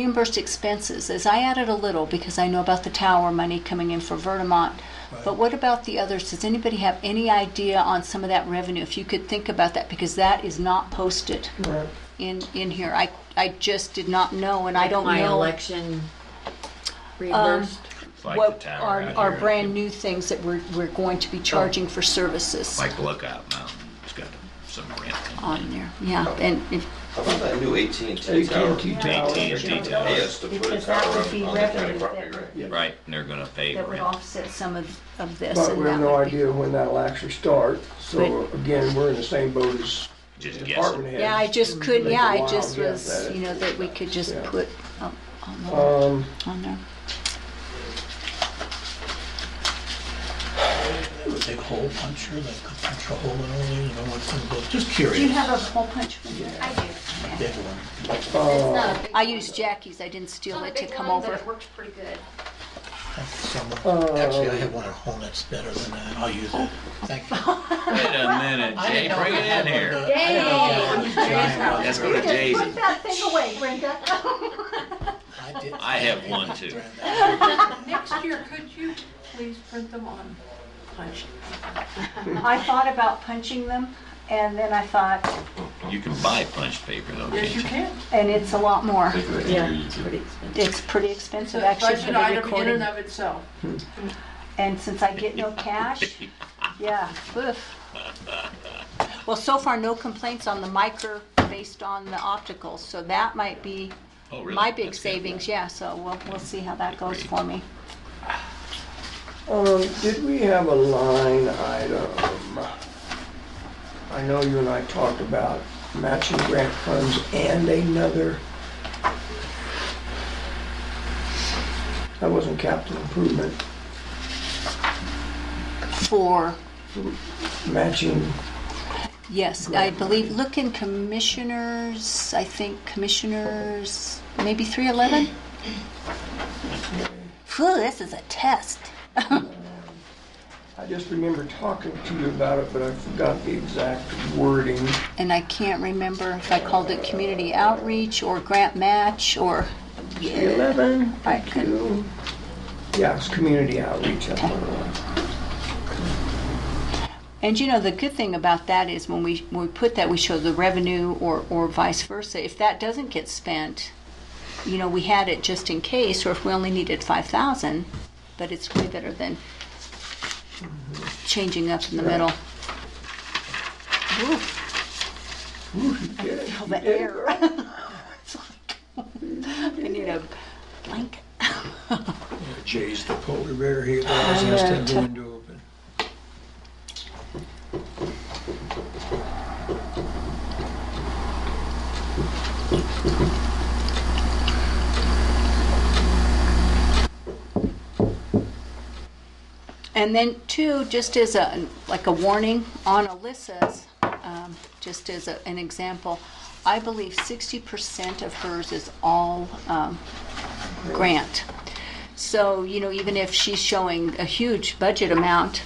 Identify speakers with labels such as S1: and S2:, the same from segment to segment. S1: Reimbursed expenses, as I added a little because I know about the tower money coming in for Vermont. But what about the others? Does anybody have any idea on some of that revenue? If you could think about that, because that is not posted
S2: Right.
S1: in, in here. I, I just did not know and I don't
S3: My
S1: know. um,
S3: election reimbursed.
S4: It's like
S1: What
S4: the tower
S1: are,
S4: out
S1: are
S4: here.
S1: brand new things that we're, we're going to be
S2: Oh.
S1: charging for services
S4: Like Lookout Mountain. It's got some rent.
S1: on there? Yeah,
S2: Oh.
S1: and if,
S5: How about that new AT&T tower?
S2: AT&T tower.
S4: AT&T
S5: Pay
S4: tower.
S5: us to put a
S1: Because
S5: tower
S1: that would be
S5: on on the county
S1: revenue
S5: property,
S1: that,
S5: right?
S2: Yeah.
S4: Right, and they're gonna pay
S1: that would
S4: rent.
S1: offset some of, of this.
S2: But
S1: and
S2: we have
S1: that
S2: no
S1: would be-
S2: idea when that'll actually start, so again, we're in the same boat as
S4: Just
S2: department
S4: guessing.
S2: heads.
S1: Yeah, I just couldn't,
S2: Make a
S1: yeah, I
S2: wild
S1: just
S2: guess
S1: was,
S2: at it.
S1: you know, that we could just
S2: Yeah.
S1: put um, on the-
S2: Um,
S1: on there.
S6: Have a big hole puncher, like a punch a hole in it, you know, what's in the book, just
S1: Do you
S6: curious,
S1: have a hole punch one there?
S7: I do.
S6: big one.
S1: I used Jackie's, I didn't steal it to come over.
S7: It works pretty good.
S6: Thank you so much. Actually, I have one at home that's better than that, I'll use it, thank you.
S4: Wait a minute, Jay, bring it in here. Let's
S6: Yay!
S4: go to Jay's.
S7: That thing away, Brenda.
S4: I have one too.
S8: Next year, could you please print them on punch?
S1: I thought about punching them, and then I thought,
S4: You can buy punch paper though,
S8: Yes,
S4: can't
S8: you
S4: you?
S8: can.
S1: and it's a lot more.
S3: Yeah, it's pretty expensive.
S1: It's pretty
S8: It's a
S1: expensive, actually, for
S8: budget
S1: the
S8: item in and
S1: recording.
S8: of itself.
S1: And since I get no cash, yeah, oof. Well, so far, no complaints on the micro based on the opticals, so that might be
S4: Oh, really?
S1: my big
S4: That's good.
S1: savings, yeah, so we'll, we'll see how that goes
S4: Great.
S1: for me.
S2: um, did we have a line item? I know you and I talked about matching grant funds and another. That wasn't capital improvement,
S1: For,
S2: matching,
S1: yes, I believe, look in commissioners, I think commissioners, maybe 311? Phew, this is a test.
S2: I just remember talking to you about it, but I forgot the exact wording.
S1: and I can't remember if I called it community outreach or grant match or.
S2: Eleven,
S1: I could,
S2: two. Yeah, it's community outreach, that's what it was.
S1: and you know, the good thing about that is when we, when we put that, we show the revenue or, or vice versa. If that doesn't get spent, you know, we had it just in case, or if we only needed five thousand, but it's way better than changing up in the middle. Ooh,
S2: Yeah,
S1: feel
S2: you
S1: the
S2: did.
S1: air. It's like, I need a blanket.
S6: Jay's the polar bear here, that always has to have the window open.
S1: And then two, just as a, like a warning on Alyssa's, um, just as a- an example, I believe sixty percent of hers is all, um, grant. So, you know, even if she's showing a huge budget amount,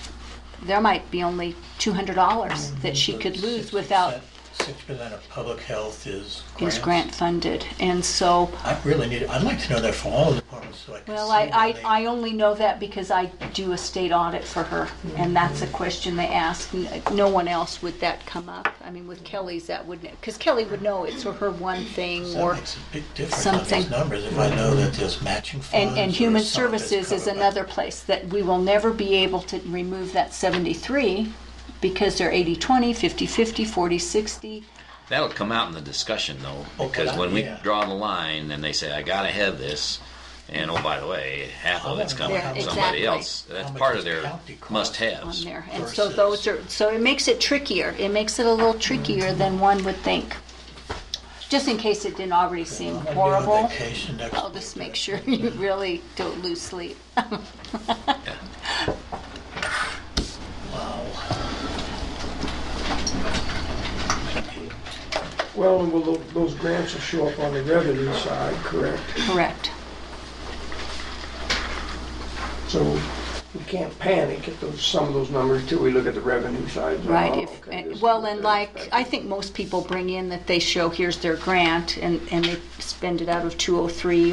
S1: there might be only two hundred dollars that she could lose without,
S6: Six percent of public health is
S1: is
S6: grants.
S1: grant funded. And so,
S6: I really need, I'd like to know that for all the departments, so I can see.
S1: Well, I,
S6: when
S1: I,
S6: they-
S1: I only know that because I do a state audit for her, and that's
S6: Mm-hmm.
S1: a question they ask. N- No one else would that come up. I mean, with Kelly's, that wouldn't, because Kelly would know it's her one thing,
S6: So
S1: or,
S6: That makes a big difference on
S1: something.
S6: these numbers, if I know that there's matching funds.
S1: and, and
S6: or
S1: human
S6: some of it's
S1: services is
S6: covered by-
S1: another place that we will never be able to remove that seventy-three because they're 80-20, 50-50, 40-60.
S4: That'll come out in the discussion though,
S6: Oh,
S4: because
S6: yeah.
S4: when we
S6: Yeah.
S4: draw the line and they say, I gotta have this, and oh, by the way, half of it's coming
S1: Yeah,
S4: from somebody
S1: exactly.
S4: else. That's
S6: Oh, How much
S4: part
S6: does
S4: of their
S6: county cost?
S1: on
S4: must-haves.
S1: there. And so
S6: Versus-
S1: those are, so it makes it trickier. It makes it a little trickier
S6: Mm-hmm.
S1: than one would think. Just in case it didn't already seem
S6: I'm gonna be on
S1: horrible,
S6: vacation next
S1: I'll
S6: week,
S1: just
S6: but-
S1: make sure you really don't lose sleep.
S2: Well, and will tho- those grants will show up on the revenue side, correct?
S1: Correct.
S2: So we can't panic at those, some of those numbers till we look at the revenue side.
S1: Right,
S2: Oh,
S1: if,
S2: okay, this
S1: and-
S2: is
S1: well,
S2: what
S1: and
S2: they're
S1: like,
S2: expecting.
S1: I think most people bring in that they show, here's their grant, and, and they spend it out of 203